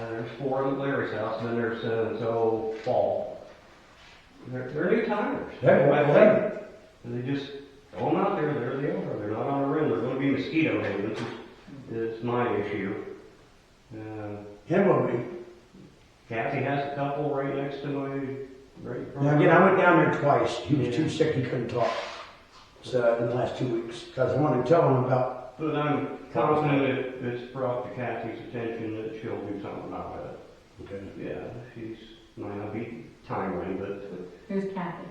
there's four of them at Larry's house, and then there's so-and-so fall. They're, they're new tires. That one, that They just throw them out there, there they are, they're not on a rim, they're gonna be mosquito hay, which is, is my issue. Uh, him on me. Kathy has a couple right next to my, right. in front Now, of again, I her. went down there twice. He was Yeah. too sick, he couldn't talk. So, in the last two weeks, because I wanted to tell him about, But I'm confident it, it's brought to Kathy's attention that she'll do something about it. Yeah, she's, might not be timely, but, Who's Kathy?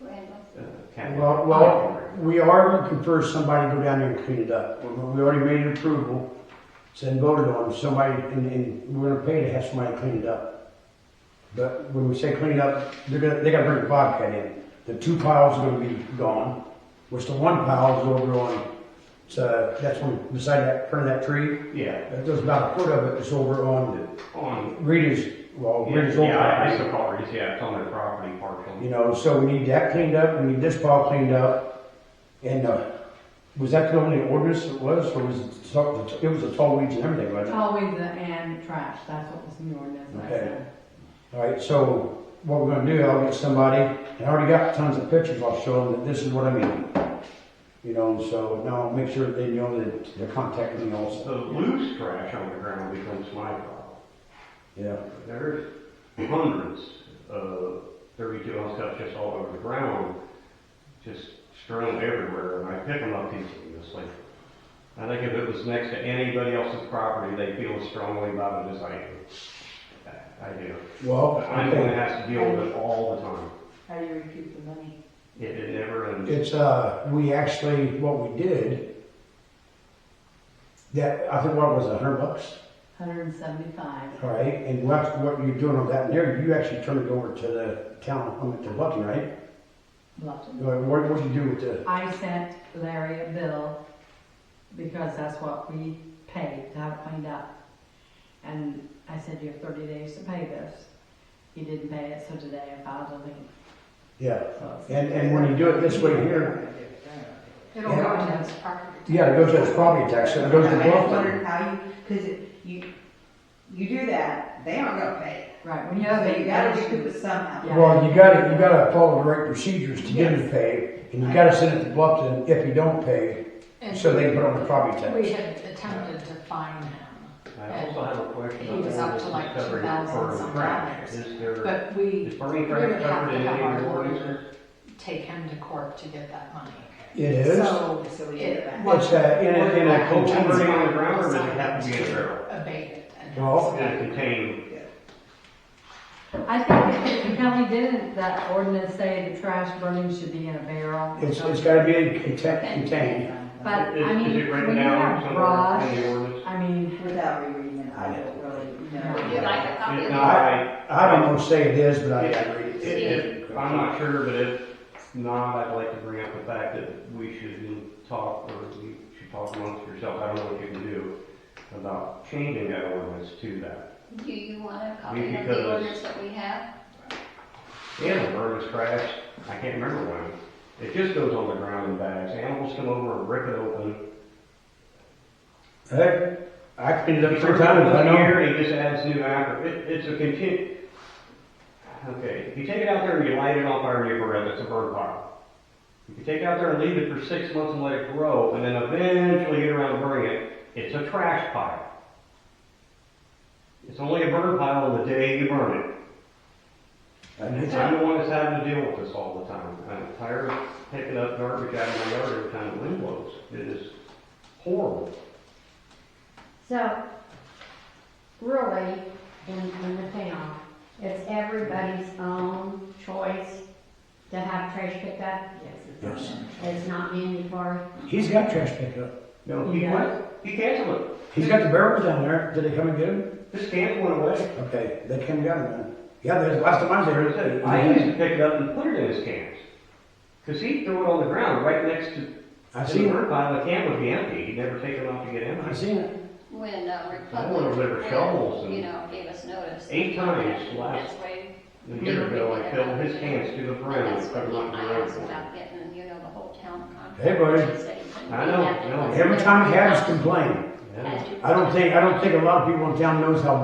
Randall. uh, Kathy. Well, well- we are looking for somebody to go down there and clean it up. We- We already made an approval, so then voted on, somebody, and, and we're gonna pay to have somebody clean it up. But when we say clean it up, they're gonna, they gotta bring the bobcat in. The two piles are gonna be gone, which the one pile is over on, so that's one beside that, front of that tree. Yeah, There's about a foot of it that's over on on, Rita's, well, yeah, Rita's old yeah, it's property. the properties, yeah, it's on their property partially. You know, so we need that cleaned up, we need this pile cleaned up. And, uh, was that the only ordinance it was, or was it, so- it was a tall weeds and everything, wasn't Tall weeds and trash, that's what was in the ordinance, I Okay. said. it? Alright, so what we're gonna do, I'll get somebody, and I already got tons of pictures, I'll show them that this is what I mean. You know, so now I'll make sure they know that they're contacting me also, The loose trash on the ground becomes my problem. yeah. There's hundreds of thirty-two ounce cups just all over the ground, just strewn everywhere, and I pick them up easily. I think if it was next to anybody else's property, they feel as strongly about it as I do. I do. Well, I'm the one that has to deal with it all the time. How do you recoup the money? It, it never ends. It's, uh, we actually, what we did, that, I think what was it, a hundred bucks, Hundred and seventy-five. all right? And what, what you're doing on that, and there, you actually turned it over to the town, I mean, to Lucky, right? Loved it. What, what what'd you do with the, I sent Larry a bill because that's what we paid to have it cleaned up. And I said, you have thirty days to pay this. He didn't pay it, so today I filed a lien. yeah, So it's- and, and when you do it this way here, It'll Oh, go to his property. yeah, it goes to its property tax, and it goes to I just Bluffton. wondered how you, cause it- you, you do that, they aren't gonna pay. Right, when You you know, but you gotta have recoup a. it somehow. Yeah. Well, you gotta, you gotta follow the right procedures to get it paid, and you gotta send it to Bluffton if you don't pay, And so they can put on the property tax. We had attempted to find him, I also have a question. He was up to like Covering 2,000 for some trash. dollars. Is there, but we is burning we would trash have covered to in have any of our your ordinances? lawyer take him to court to get that money. It is, So So we get it it back. it's a, in a, in a Open container. burning on the ground, or does it have to be in a barrel? abate it. and- Well, In a contained I think the county didn't, that ordinance say the trash burning should be in a barrel. It's, it's gotta be contain- contained. But, Is, I mean, is it written when you down have somewhere in brush, the ordinance? I mean, Without rereading it, I don't really know. Would you like a copy of If the- not, I, I don't want to say it is, but I if, agree. if, if- I'm not sure, but if not, I'd like to bring up the fact that we should talk, or you should talk amongst yourself, I don't know what you can do about changing that ordinance to that. Do you want a Maybe copy of because- the ordinance that we have? And the bird is trash, I can't remember when, it just goes on the ground in bags, animals come over and rip it open. Heck, I cleaned it up If three you're done times, I with know. here, it just adds new after, it, it's a continu, okay, if you take it out there and you light it on fire and you burn it, it's a burn pile. If you take it out there and leave it for six months and let it grow, and then eventually get around to burning it, it's a trash pile. It's only a burn pile on the day you burn it. And I'm the one that's having to deal with this all the time. I'm tired of picking up garbage out of my yard every time the wind blows. It is horrible. So, really, in, in the town, it's everybody's own choice to have trash picked up. Yes. It's not mandatory. He's got trash pickup. No, he Yeah. went, he canceled it. He's got the barrels down there. Did they come and get him? This can went away. Okay, they came and got him then. Yeah, there's, last time I was Like I said, there. I used I- to pick it up and put it in his cans. Cause he'd throw it on the ground right next to, I see seen the it. bird pile, the can would be empty, he'd never take it off to get I empty. seen it. When uh, I wanna deliver shovels Republic, and- you know, gave us notice. Eight times last- That's way- A year ago, I filled his cans to the brim, That's and put what it on the I ground. asked about getting, you know, the whole town contract. Hey, buddy. I know, I know. Every time he has complained. Yeah. I don't think, I don't think a lot of people in town knows how bad